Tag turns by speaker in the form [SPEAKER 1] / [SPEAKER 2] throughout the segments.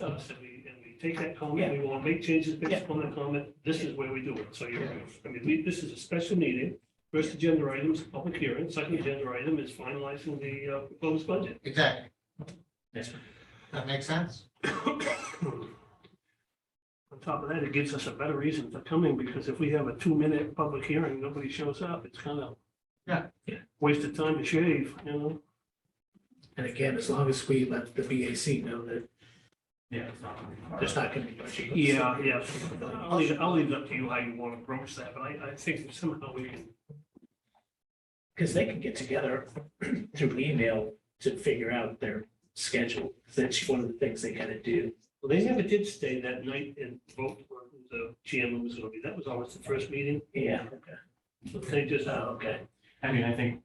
[SPEAKER 1] with us, and we, and we take that comment, we want to make changes based
[SPEAKER 2] Yeah.
[SPEAKER 1] upon that comment, this is where we do it, so you're, I mean, we, this is a special meeting. First agenda item is public hearing, second agenda item is finalizing the uh, proposed budget.
[SPEAKER 3] Exactly.
[SPEAKER 2] Yes, sir.
[SPEAKER 3] That makes sense?
[SPEAKER 1] On top of that, it gives us a better reason for coming, because if we have a two-minute public hearing, nobody shows up, it's kind of
[SPEAKER 3] Yeah.
[SPEAKER 1] waste of time to shave, you know?
[SPEAKER 4] And again, as long as we let the BAC know that
[SPEAKER 2] Yeah, it's not. gonna be hard.
[SPEAKER 4] there's not gonna be budget.
[SPEAKER 1] Yeah, yeah. I'll leave, I'll leave it up to you how you want to approach that, but I, I think somehow we can
[SPEAKER 4] Because they can get together through email to figure out their schedule. That's one of the things they gotta do.
[SPEAKER 1] Well, they never did stay that night and vote for who the GM was gonna be. That was always the first meeting.
[SPEAKER 4] Yeah.
[SPEAKER 1] They just,
[SPEAKER 4] Oh,
[SPEAKER 1] uh,
[SPEAKER 4] okay.
[SPEAKER 2] I mean, I think,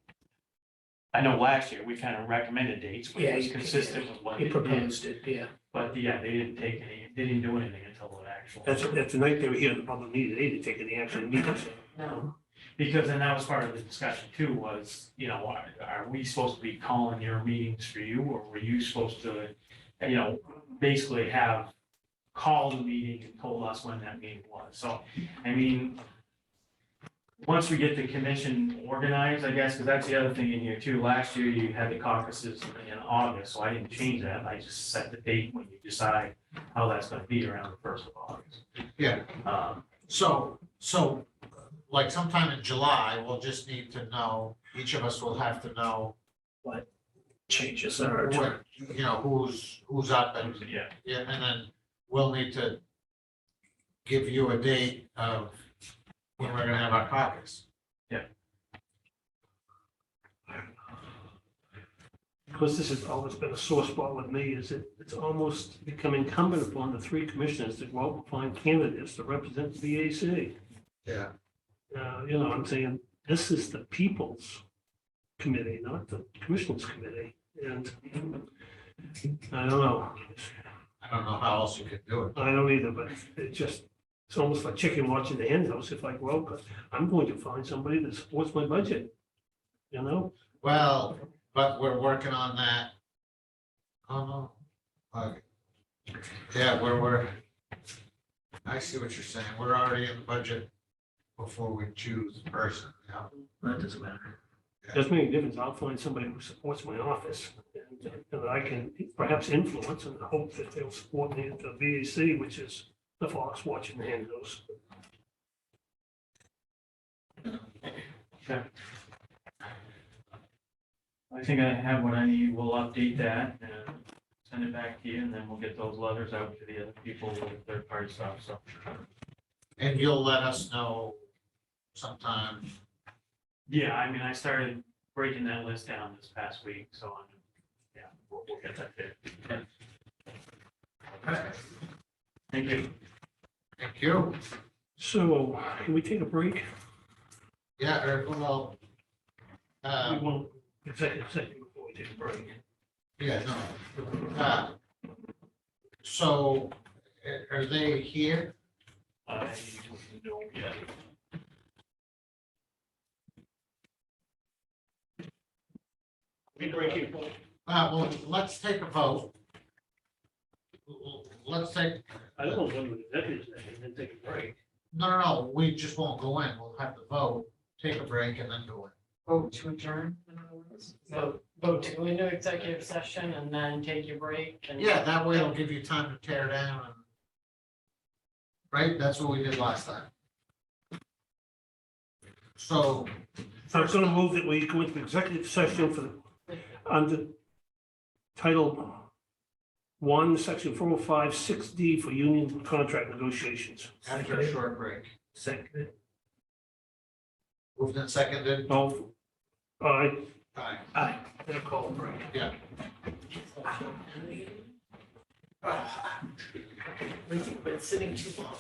[SPEAKER 2] I know last year, we kind of recommended dates, which
[SPEAKER 4] Yeah,
[SPEAKER 2] was
[SPEAKER 4] you-
[SPEAKER 2] consistent with what
[SPEAKER 4] He
[SPEAKER 2] they did.
[SPEAKER 4] proposed it, yeah.
[SPEAKER 2] But yeah, they didn't take any, they didn't do anything until the actual.
[SPEAKER 1] that's, that's the night they were here in the public meeting. They didn't take any action meetings.
[SPEAKER 2] No, because then that was part of the discussion too, was, you know, are, are we supposed to be calling your meetings for you, or were you supposed to, you know, basically have called the meeting and told us when that meeting was, so, I mean, once we get the commission organized, I guess, because that's the other thing in here too, last year you had the caucuses in August, so I didn't change that, I just set the date when you decide how that's gonna be around the first of August.
[SPEAKER 3] Yeah.
[SPEAKER 2] Um,
[SPEAKER 3] So, so like sometime in July, we'll just need to know, each of us will have to know
[SPEAKER 4] Changes are,
[SPEAKER 3] what, you know, who's, who's up and,
[SPEAKER 2] Yeah,
[SPEAKER 3] yeah, and then we'll need to give you a date of when we're gonna have our caucus.
[SPEAKER 1] Because this has always been a sore spot with me is it, it's almost become incumbent upon the three commissioners to go out and find candidates to represent the VAC.
[SPEAKER 3] Yeah.
[SPEAKER 1] Uh, you know, I'm saying, this is the people's committee, not the commissioners committee. And I don't know.
[SPEAKER 3] I don't know how else you could do it.
[SPEAKER 1] I don't either, but it just, it's almost like chicken watching the hen house. If I go out, but I'm going to find somebody that supports my budget. You know,
[SPEAKER 3] Well, but we're working on that. Oh, no. Okay. Yeah, we're, we're, I see what you're saying. We're already in the budget before we choose the person, yeah.
[SPEAKER 4] that doesn't matter.
[SPEAKER 1] doesn't make a difference. I'll find somebody who supports my office and uh, that I can perhaps influence and hope that they'll support me at the VAC, which is the fox watching the hen house.
[SPEAKER 2] I think I have what I need. We'll update that and send it back to you, and then we'll get those letters out to the other people with third party stuff, so.
[SPEAKER 3] And you'll let us know sometime.
[SPEAKER 2] Yeah, I mean, I started breaking that list down this past week, so I'm, yeah, we'll, we'll get that there. Thank you.
[SPEAKER 3] Thank you.
[SPEAKER 1] So can we take a break?
[SPEAKER 3] Yeah, or, well,
[SPEAKER 1] We
[SPEAKER 3] uh,
[SPEAKER 1] won't executive session before we take a break.
[SPEAKER 3] yeah, no. Uh, So a- are they here?
[SPEAKER 2] Uh, no, yeah.
[SPEAKER 1] We break here.
[SPEAKER 3] Uh, well, let's take a vote. L- l- Let's take,
[SPEAKER 1] I don't want to go to executive session and then take a break.
[SPEAKER 3] No, no, no, we just won't go in. We'll have to vote, take a break and then go
[SPEAKER 5] vote to adjourn. in other words? Vote, vote to go into executive session and then take your break
[SPEAKER 3] in.
[SPEAKER 5] and.
[SPEAKER 3] Yeah, that way it'll give you time to tear down and. Right? That's what we did last time. So,
[SPEAKER 1] I'm going to move that we go into executive session for, the- under title one, section four oh five, six D for union contract negotiations.
[SPEAKER 3] after a short break,
[SPEAKER 1] Second.
[SPEAKER 3] moved and seconded,
[SPEAKER 1] All, aye,
[SPEAKER 3] aye.
[SPEAKER 4] Aye.
[SPEAKER 1] and a call break.
[SPEAKER 3] Ah.
[SPEAKER 5] We've been sitting too long.